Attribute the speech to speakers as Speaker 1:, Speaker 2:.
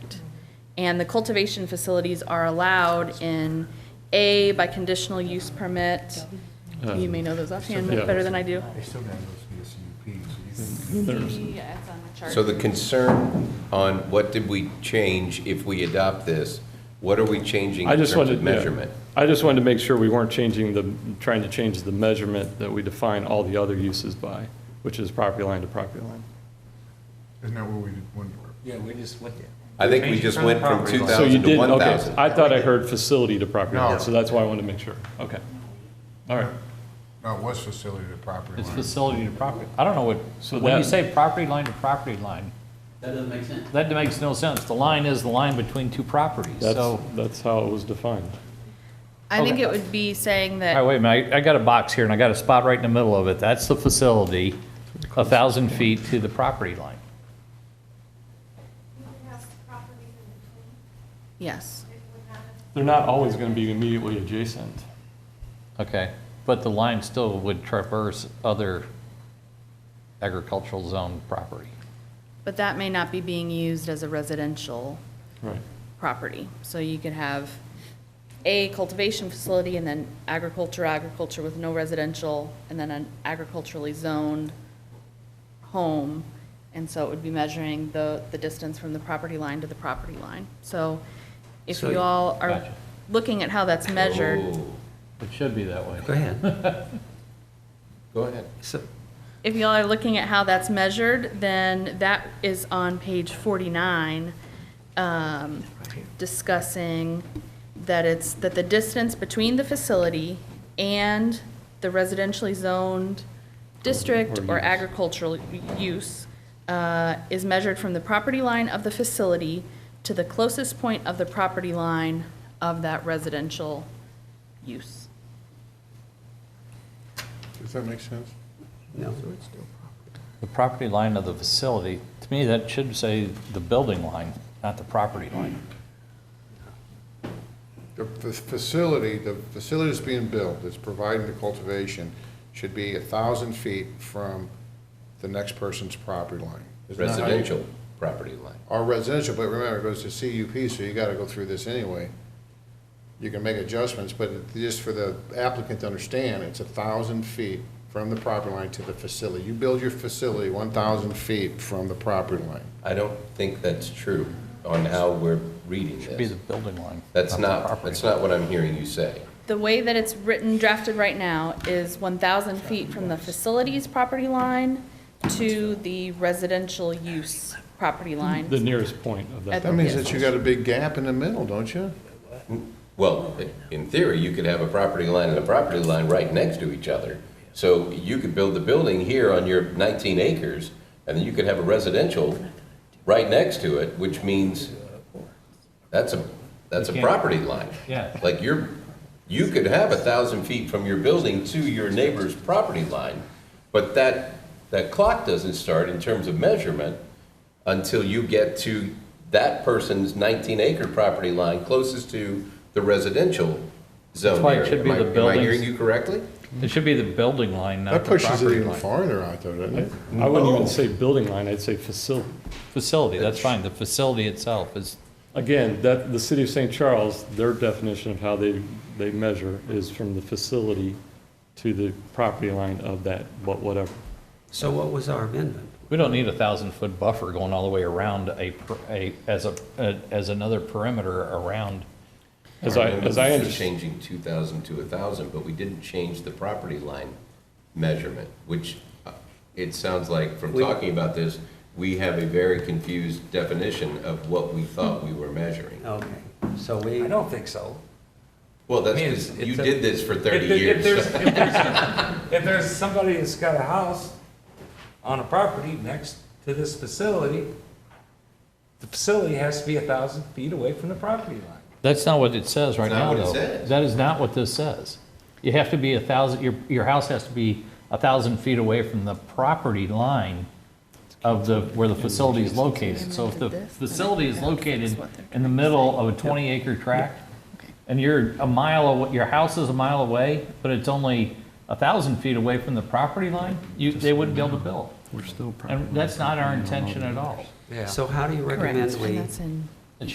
Speaker 1: And the cultivation facilities are allowed in A by conditional use permit. You may know those offhand
Speaker 2: Uh, Yeah.
Speaker 1: better than I do.
Speaker 3: They still gotta go see a CUP, so you can.
Speaker 2: There's-
Speaker 1: Yeah, it's on the chart.
Speaker 4: So the concern on what did we change if we adopt this, what are we changing
Speaker 2: I
Speaker 4: in
Speaker 2: just
Speaker 4: terms
Speaker 2: wanted,
Speaker 4: of
Speaker 2: yeah.
Speaker 4: measurement?
Speaker 2: I just wanted to make sure we weren't changing the, trying to change the measurement that we define all the other uses by, which is property line to property line.
Speaker 3: Isn't that what we did, when,
Speaker 5: Yeah, we just went there.
Speaker 4: I think we just went from
Speaker 5: Property
Speaker 2: So
Speaker 5: line.
Speaker 4: 2,000
Speaker 2: you
Speaker 4: to
Speaker 2: didn't, okay,
Speaker 4: 1,000.
Speaker 2: I thought I heard facility to property
Speaker 3: No.
Speaker 2: line, so that's why I wanted to make sure, okay. All right,
Speaker 3: no, it was facility to property
Speaker 5: It's
Speaker 3: line.
Speaker 5: facility to property, I don't know what,
Speaker 2: So
Speaker 5: when you
Speaker 2: that-
Speaker 5: say property line to property line,
Speaker 6: That doesn't make sense.
Speaker 5: that makes no sense. The line is the line between two properties, so.
Speaker 2: that's, that's how it was defined.
Speaker 1: I think it would be saying
Speaker 5: All right,
Speaker 1: that,
Speaker 5: wait a minute, I I got a box here and I got a spot right in the middle of it. That's the facility, a thousand feet to the property line.
Speaker 1: yes.
Speaker 2: They're not always gonna be immediately adjacent.
Speaker 5: Okay, but the line still would traverse other agricultural zone property.
Speaker 1: But that may not be being used as a residential
Speaker 2: Right.
Speaker 1: property. So you could have a cultivation facility and then agriculture, agriculture with no residential, and then an agriculturally zoned home. And so it would be measuring the, the distance from the property line to the property line. So if
Speaker 6: So-
Speaker 1: you all are
Speaker 5: Gotcha.
Speaker 1: looking at how that's measured,
Speaker 4: Oh,
Speaker 5: It should be that way.
Speaker 6: Go ahead.
Speaker 4: Go ahead.
Speaker 6: So,
Speaker 1: if you all are looking at how that's measured, then that is on page forty-nine. Um, discussing that it's, that the distance between the facility and the residentially zoned district
Speaker 2: Or
Speaker 1: or
Speaker 2: use.
Speaker 1: agricultural use uh, is measured from the property line of the facility to the closest point of the property line of that residential use.
Speaker 3: Does that make sense?
Speaker 6: no.
Speaker 5: The property line of the facility, to me, that should say the building line, not the property line.
Speaker 7: The f- facility, the facility that's being built, that's providing the cultivation, should be a thousand feet from the next person's property line. Isn't that how you-
Speaker 4: Residential property line.
Speaker 7: Or residential, but remember, it goes to CUP, so you gotta go through this anyway. You can make adjustments, but it- just for the applicant to understand, it's a thousand feet from the property line to the facility. You build your facility one thousand feet from the property line.
Speaker 4: I don't think that's true on how we're reading
Speaker 5: Should be
Speaker 4: this.
Speaker 5: the building line.
Speaker 4: That's
Speaker 5: the
Speaker 4: not,
Speaker 5: property
Speaker 4: that's
Speaker 5: line.
Speaker 4: not what I'm hearing you say.
Speaker 1: The way that it's written, drafted right now, is 1,000 feet from the facilities property line to the residential use property
Speaker 2: The
Speaker 1: line.
Speaker 2: nearest point of that.
Speaker 7: That means that you got a big gap in the middle, don't you?
Speaker 4: Well, in theory, you could have a property line and a property line right next to each other. So you could build the building here on your 19 acres, and then you could have a residential right next to it, which means that's a, that's a
Speaker 5: You can't-
Speaker 4: property line.
Speaker 5: Yeah.
Speaker 4: Like you're, you could have a thousand feet from your building to your neighbor's property line, but that, that clock doesn't start in terms of measurement until you get to that person's nineteen acre property line closest to the residential zone
Speaker 5: why it
Speaker 4: area.
Speaker 5: should be
Speaker 4: Am I-
Speaker 5: the
Speaker 4: Am I
Speaker 5: buildings.
Speaker 4: hearing you correctly?
Speaker 5: It should be the building line, not
Speaker 7: That
Speaker 5: the
Speaker 7: pushes it
Speaker 5: property
Speaker 7: even
Speaker 5: line.
Speaker 7: farther out though, doesn't it?
Speaker 2: I wouldn't even say building line, I'd say facility.
Speaker 5: Facility, that's fine, the facility itself is,
Speaker 2: Again, that, the city of St. Charles, their definition of how they, they measure is from the facility to the property line of that, what, whatever.
Speaker 6: So what was our amendment?
Speaker 5: we don't need a thousand-foot buffer going all the way around a, per- a, as a, a- as another perimeter around.
Speaker 2: As I, as I
Speaker 4: This is
Speaker 2: understand,
Speaker 4: Changing two thousand to a thousand, but we didn't change the property line measurement, which uh, it sounds like from talking about this, we have a very confused definition of what we thought we were measuring.
Speaker 6: Okay, so we,
Speaker 8: I don't think so.
Speaker 4: Well, that's
Speaker 8: I mean, it's-
Speaker 4: because you
Speaker 8: it's a-
Speaker 4: did this for thirty
Speaker 8: If there-
Speaker 4: years.
Speaker 8: If there's, if there's, if there's somebody that's got a house on a property next to this facility, the facility has to be a thousand feet away from the property line.
Speaker 5: That's not what it says right
Speaker 4: It's not
Speaker 5: now,
Speaker 4: what it
Speaker 5: though.
Speaker 4: says.
Speaker 5: That is not what this says. You have to be a thousand, your, your house has to be a thousand feet away from the property line of the, where the facility is located. So if the facility is located in the middle of a 20-acre tract, and you're a mile, aw- your house is a mile away, but it's only a thousand feet away from the property line, you, they wouldn't be able to build.
Speaker 2: we're still.
Speaker 5: And that's not our intention at all.
Speaker 8: Yeah.
Speaker 6: so how do you
Speaker 1: Correct,
Speaker 6: recommend
Speaker 1: and
Speaker 6: we
Speaker 1: that's in